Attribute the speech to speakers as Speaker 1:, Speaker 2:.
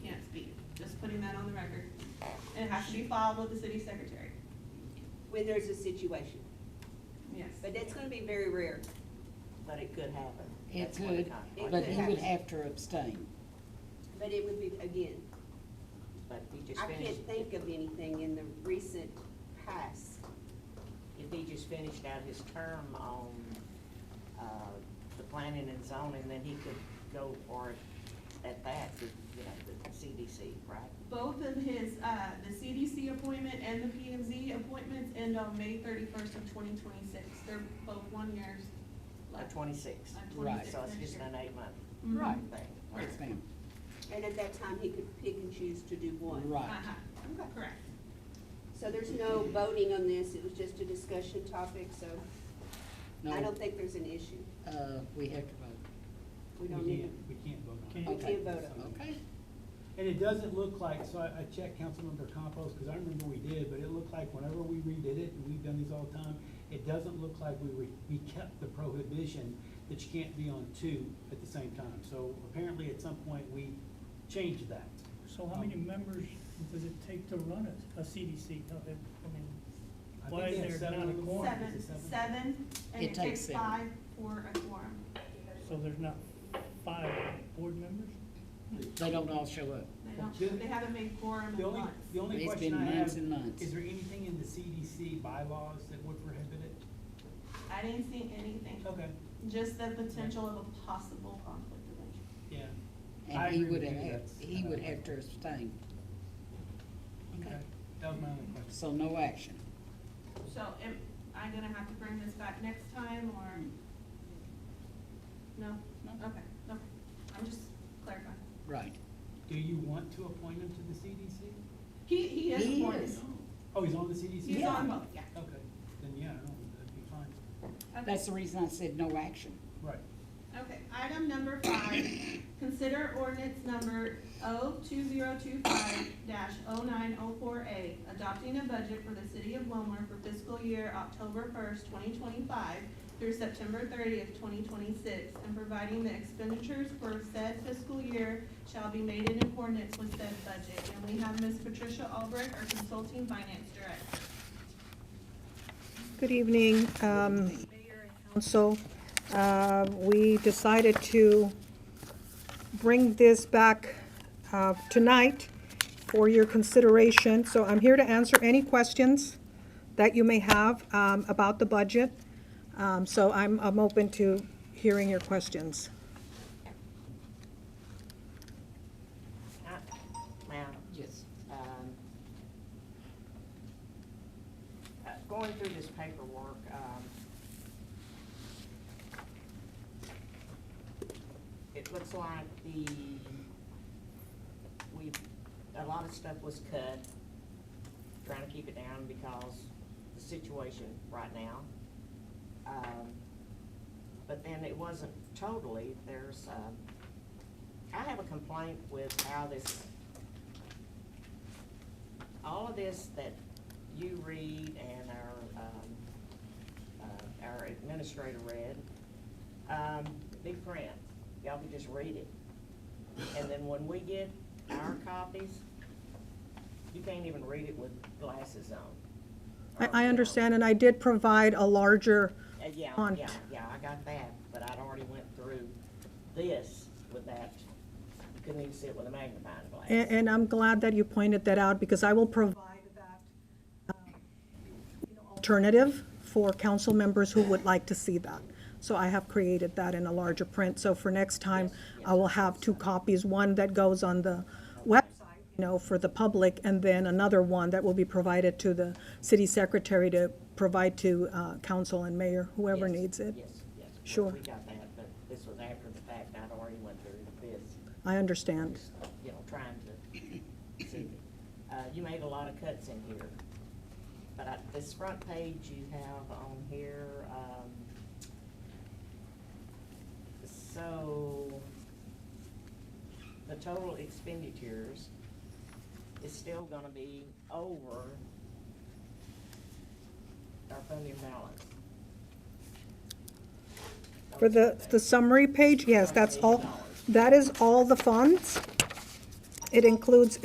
Speaker 1: putting that on the record. And it has to be filed with the city secretary.
Speaker 2: when there's a situation.
Speaker 1: Yes.
Speaker 2: But that's gonna be very rare. But it could happen.
Speaker 3: It could,
Speaker 2: It could
Speaker 3: but he
Speaker 2: happen.
Speaker 3: would have to abstain.
Speaker 2: But it would be, again,
Speaker 4: But if he just
Speaker 2: I
Speaker 4: finished,
Speaker 2: can't think of anything in the recent past.
Speaker 4: if he just finished out his term on, uh, the planning and zoning, then he could go for it at that, the, you know, the CDC, right?
Speaker 1: Both of his, uh, the CDC appointment and the PMZ appointments end on May thirty-first of twenty twenty-six. They're both one years
Speaker 4: Or
Speaker 1: left.
Speaker 4: twenty-six.
Speaker 1: Like
Speaker 3: Right.
Speaker 1: 26
Speaker 4: So it's
Speaker 1: next
Speaker 4: just
Speaker 1: year.
Speaker 4: an eight-month
Speaker 1: Mhm.
Speaker 3: Right.
Speaker 4: thing.
Speaker 3: Yes, ma'am.
Speaker 2: And at that time, he could pick and choose to do one.
Speaker 3: Right.
Speaker 1: Uh-huh.
Speaker 2: Okay.
Speaker 1: Correct.
Speaker 2: So there's no voting on this, it was just a discussion topic, so I
Speaker 3: No,
Speaker 2: don't think there's an issue.
Speaker 3: uh, we have to vote.
Speaker 2: We don't
Speaker 5: We
Speaker 2: need,
Speaker 5: can't, we can't vote on it.
Speaker 2: We
Speaker 3: Okay.
Speaker 2: can't vote on
Speaker 3: Okay,
Speaker 5: And it doesn't look like, so I, I checked Councilmember Compost, because I remember we did, but it looked like whenever we redid it, and we've done these all the time, it doesn't look like we, re- we kept the prohibition that you can't be on two at the same time. So apparently at some point, we changed that.
Speaker 6: So how many members does it take to run a, a CDC? No, it- I mean,
Speaker 5: I
Speaker 6: Why
Speaker 5: think
Speaker 6: is
Speaker 5: they had
Speaker 6: there
Speaker 5: seven
Speaker 6: not a
Speaker 5: on the
Speaker 6: quorum?
Speaker 5: board. Is
Speaker 1: Seven,
Speaker 5: it
Speaker 1: seven, and
Speaker 3: It
Speaker 1: it
Speaker 3: takes
Speaker 1: takes
Speaker 3: seven.
Speaker 1: five for a quorum.
Speaker 6: so there's not five board members?
Speaker 3: they don't all show up.
Speaker 1: They don't, they haven't made quorum
Speaker 5: The
Speaker 1: in
Speaker 5: only,
Speaker 1: months.
Speaker 5: the only
Speaker 3: It's
Speaker 5: question
Speaker 3: been
Speaker 5: I have,
Speaker 3: months
Speaker 5: is
Speaker 3: and months.
Speaker 5: there anything in the CDC bylaws that would prohibit it?
Speaker 1: I didn't see anything,
Speaker 5: Okay,
Speaker 1: just the potential of a possible conflict of interest.
Speaker 5: yeah. I
Speaker 3: And he
Speaker 5: agree
Speaker 3: would
Speaker 5: with you,
Speaker 3: have,
Speaker 5: that's-
Speaker 3: he would have to abstain,
Speaker 5: Okay, that was my only question.
Speaker 3: so no action.
Speaker 1: So am I gonna have to bring this back next time or? No?
Speaker 3: Mm. No.
Speaker 1: Okay, okay. I'm just clarifying.
Speaker 3: Right.
Speaker 5: Do you want to appoint him to the CDC?
Speaker 1: He, he is
Speaker 3: He
Speaker 1: appointed.
Speaker 3: is.
Speaker 5: Oh, he's on the CDC?
Speaker 1: He's on both, yeah.
Speaker 5: Okay, then yeah, I don't- that'd be fine.
Speaker 1: Okay.
Speaker 3: Oh, That's the reason I said no action.
Speaker 5: Right.
Speaker 1: Okay, item number five, consider ordinance number O two zero two five dash oh nine oh four A, adopting a budget for the city of Wilmer for fiscal year October first, twenty twenty-five through September thirtieth, twenty twenty-six, and providing the expenditures for said fiscal year shall be made in accordance with said budget. And we have Ms. Patricia Albrecht, our consulting finance director.
Speaker 7: Good evening, um, Mayor and Council. Uh, We decided to bring this back uh, tonight for your consideration. So I'm here to answer any questions that you may have um, about the budget. Um, So I'm I'm open to hearing your questions.
Speaker 4: I- Now,
Speaker 3: Yes.
Speaker 4: um, uh, going through this paperwork, um, it looks like the, we, a lot of stuff was cut, trying to keep it down because the situation right now. Um, But then it wasn't totally, there's, um, I have a complaint with how this all of this that you read and our, um, uh, our administrator read, um, big print, y'all can just read it. And then when we get our copies, you can't even read it with glasses on.
Speaker 7: I I understand, and I did provide a larger,
Speaker 4: Uh, Yeah,
Speaker 7: on-
Speaker 4: yeah, yeah, I got that, but I'd already went through this with that, you couldn't even see it with a magnifying glass.
Speaker 7: a- and I'm glad that you pointed that out, because I will provide that um, you know, alternative for council members who would like to see that. So I have created that in a larger print, so for next time, I will have two copies, one that goes on the website, you know, for the public, and then another one that will be provided to the city secretary to provide to uh, council and mayor, whoever
Speaker 4: Yes,
Speaker 7: needs it.
Speaker 4: Yes, yes. We-
Speaker 7: Sure.
Speaker 4: We got that, but this was after the fact, I'd already went through this,
Speaker 7: I understand.
Speaker 4: just, you know, trying to see. Uh, you made a lot of cuts in here, but I, this front page you have on here, um, so, the total expenditures is still gonna be over our funding balance.
Speaker 7: For the, the summary page, yes, that's all, that is all the funds. It includes